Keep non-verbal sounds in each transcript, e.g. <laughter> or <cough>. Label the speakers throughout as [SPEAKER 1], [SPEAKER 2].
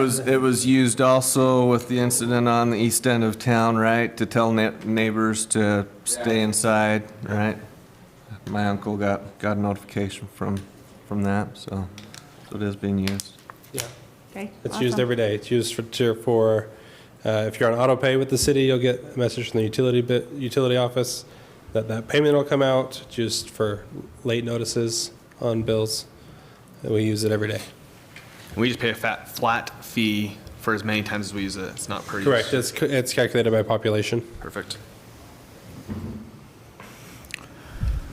[SPEAKER 1] was, it was used also with the incident on the east end of town, right? To tell ne- neighbors to stay inside, right? My uncle got, got a notification from, from that, so, so it is being used.
[SPEAKER 2] Yeah,
[SPEAKER 3] Okay.
[SPEAKER 2] it's used
[SPEAKER 3] awesome.
[SPEAKER 2] every day. It's used for, to- for, uh, if you're on auto pay with the city, you'll get a message from the utility bit, utility office that that payment will come out just for late notices on bills. And we use it every day.
[SPEAKER 4] We just pay a fat, flat fee for as many times as we use it. It's not per use.
[SPEAKER 2] Correct. It's, c- it's calculated by population.
[SPEAKER 4] Perfect.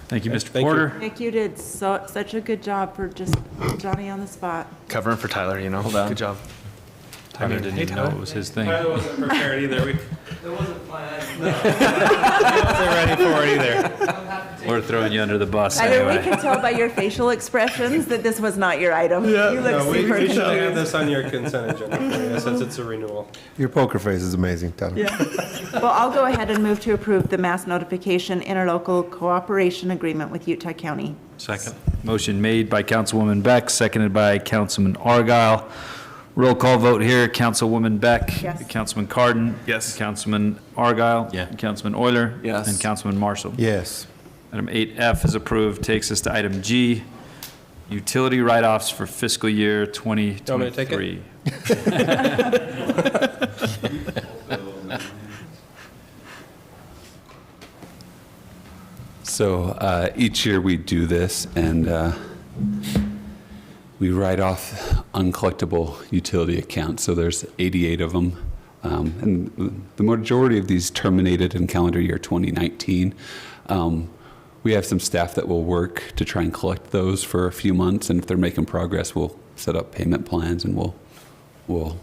[SPEAKER 5] Thank you, Mr.
[SPEAKER 2] Thank you.
[SPEAKER 5] Porter.
[SPEAKER 3] Nick, you did so, such a good job for just Johnny on the spot.
[SPEAKER 4] Covering for Tyler, you know.
[SPEAKER 1] Hold on.
[SPEAKER 4] Good job.
[SPEAKER 5] Tyler didn't
[SPEAKER 4] Hey,
[SPEAKER 5] even know it
[SPEAKER 4] Tyler.
[SPEAKER 5] was his thing.
[SPEAKER 2] wasn't prepared either. We
[SPEAKER 5] We're throwing you under the bus
[SPEAKER 3] I mean, we
[SPEAKER 5] anyway.
[SPEAKER 3] can tell by your facial expressions that this was not your item. You look
[SPEAKER 2] No, we,
[SPEAKER 3] super
[SPEAKER 2] we should have
[SPEAKER 3] confused.
[SPEAKER 2] this on your consent agenda, since it's a renewal.
[SPEAKER 6] Your poker face is amazing, Tyler.
[SPEAKER 3] Well, I'll go ahead and move to approve the mass notification interlocal cooperation agreement with Utah County.
[SPEAKER 5] Second. Motion made by Councilwoman Beck, seconded by Councilman Argyle. Roll call vote here. Councilwoman Beck.
[SPEAKER 3] Yes.
[SPEAKER 5] Councilman Cardon.
[SPEAKER 4] Yes.
[SPEAKER 5] Councilman Argyle.
[SPEAKER 7] Yeah.
[SPEAKER 5] Councilman Euler.
[SPEAKER 1] Yes.
[SPEAKER 5] And Councilman Marshall.
[SPEAKER 6] Yes.
[SPEAKER 5] Item 8F is approved. Takes us to item G, utility write-offs for fiscal year
[SPEAKER 2] want me to take it?
[SPEAKER 5] 2023.
[SPEAKER 7] So uh, each year we do this, and uh, we write off uncollectible utility accounts. So there's 88 of them, um, and the majority of these terminated in calendar year 2019. Um, we have some staff that will work to try and collect those for a few months, and if they're making progress, we'll set up payment plans and we'll we'll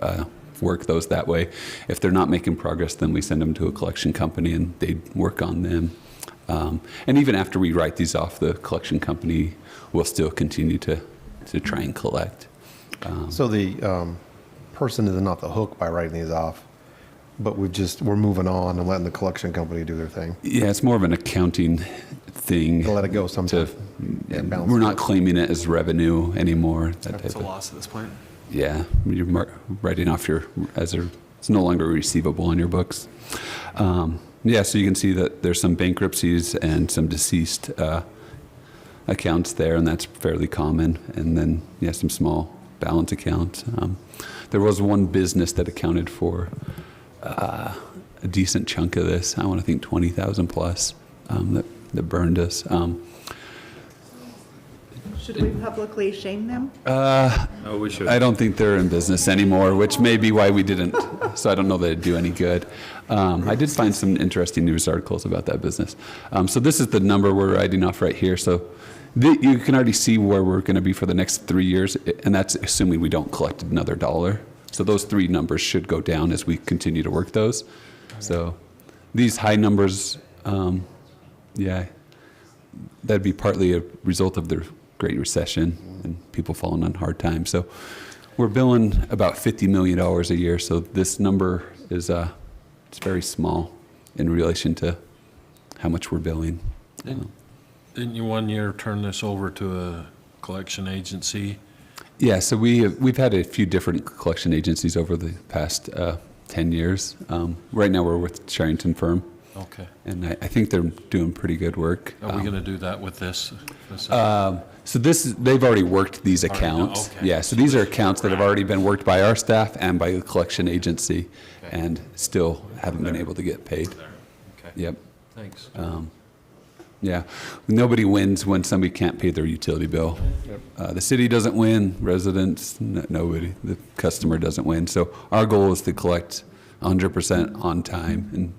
[SPEAKER 7] uh, work those that way. If they're not making progress, then we send them to a collection company and they work on them. Um, and even after we write these off, the collection company will still continue to, to try and collect.
[SPEAKER 6] So the um, person is not the hook by writing these off, but we've just, we're moving on and letting the collection company do their thing.
[SPEAKER 7] Yeah, it's more of an accounting thing.
[SPEAKER 6] To let it go
[SPEAKER 7] To,
[SPEAKER 6] sometime. Yeah, balance
[SPEAKER 7] we're
[SPEAKER 6] it
[SPEAKER 7] not
[SPEAKER 6] out.
[SPEAKER 7] claiming it as revenue anymore. That type
[SPEAKER 4] It's a
[SPEAKER 7] of,
[SPEAKER 4] loss at this point.
[SPEAKER 7] yeah, you're mar- writing off your as a it's no longer receivable on your books. Um, yeah, so you can see that there's some bankruptcies and some deceased uh, accounts there, and that's fairly common. And then yeah, some small balance accounts. Um, there was one business that accounted for uh, a decent chunk of this. I want to think twenty thousand plus um, that that burned us. Um,
[SPEAKER 3] Should we publicly shame them?
[SPEAKER 5] Oh, we should.
[SPEAKER 7] I don't think they're in business anymore, which may be why we didn't. So I don't know that it'd do any good. Um, I did find some interesting news articles about that business. Um, so this is the number we're writing off right here. So th- you can already see where we're going to be for the next three years, i- and that's assuming we don't collect another dollar. So those three numbers should go down as we continue to work those. So these high numbers, um, yeah, that'd be partly a result of the Great Recession and people falling on hard times. So we're billing about $50 million a year. So this number is uh, it's very small in relation to how much we're billing.
[SPEAKER 8] Didn't you one year turn this over to a collection agency?
[SPEAKER 7] Yeah, so we we've had a few different collection agencies over the past uh, 10 years. Um, right now we're with Sherrington Firm,
[SPEAKER 8] Okay.
[SPEAKER 7] and I, I think they're doing pretty good work.
[SPEAKER 8] Are we
[SPEAKER 7] Um,
[SPEAKER 8] going to do that with this? This-
[SPEAKER 7] So this is, they've already worked these
[SPEAKER 8] Already done,
[SPEAKER 7] accounts.
[SPEAKER 8] okay.
[SPEAKER 7] Yeah, so these are accounts that have already been worked by our staff and by the collection agency and still haven't been able to get paid.
[SPEAKER 8] Okay,
[SPEAKER 7] Yep,
[SPEAKER 8] thanks.
[SPEAKER 7] yeah. Nobody wins when somebody can't pay their utility bill. Uh, the city doesn't win, residents, n- nobody, the customer doesn't win. So our goal is to collect 100% on time and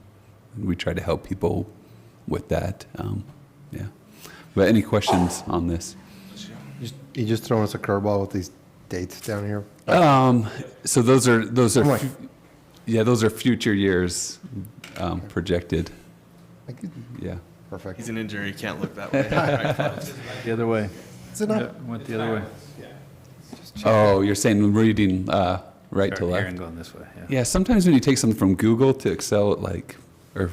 [SPEAKER 7] we try to help people with that. Um, yeah. But any questions on this?
[SPEAKER 6] Just- You just throwing us a curveball with these dates down here?
[SPEAKER 7] Um, so those are, those are,
[SPEAKER 6] Right.
[SPEAKER 7] fu- yeah, those are future years, um, projected,
[SPEAKER 6] Like,
[SPEAKER 7] yeah.
[SPEAKER 6] Perfect.
[SPEAKER 4] He's an injury. You can't
[SPEAKER 1] <laughs>
[SPEAKER 4] look that way.
[SPEAKER 5] The other way.
[SPEAKER 6] Is it not?
[SPEAKER 5] Went the other way.
[SPEAKER 7] Oh, you're saying reading, uh, right to
[SPEAKER 5] Here
[SPEAKER 7] left?
[SPEAKER 5] and going this way, yeah.
[SPEAKER 7] Yeah, sometimes when you take something from Google to Excel, it like, or,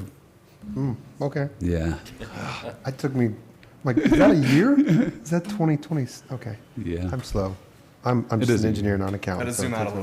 [SPEAKER 6] Okay.
[SPEAKER 7] yeah,
[SPEAKER 6] It took me, like, is that a year? Is that 2020? Okay.
[SPEAKER 7] yeah.
[SPEAKER 6] I'm slow. I'm, I'm
[SPEAKER 7] It
[SPEAKER 6] just
[SPEAKER 7] is
[SPEAKER 6] an
[SPEAKER 7] a
[SPEAKER 6] engineer, not an accountant.
[SPEAKER 4] Gotta
[SPEAKER 6] so it
[SPEAKER 4] zoom out
[SPEAKER 6] takes
[SPEAKER 4] a
[SPEAKER 6] me-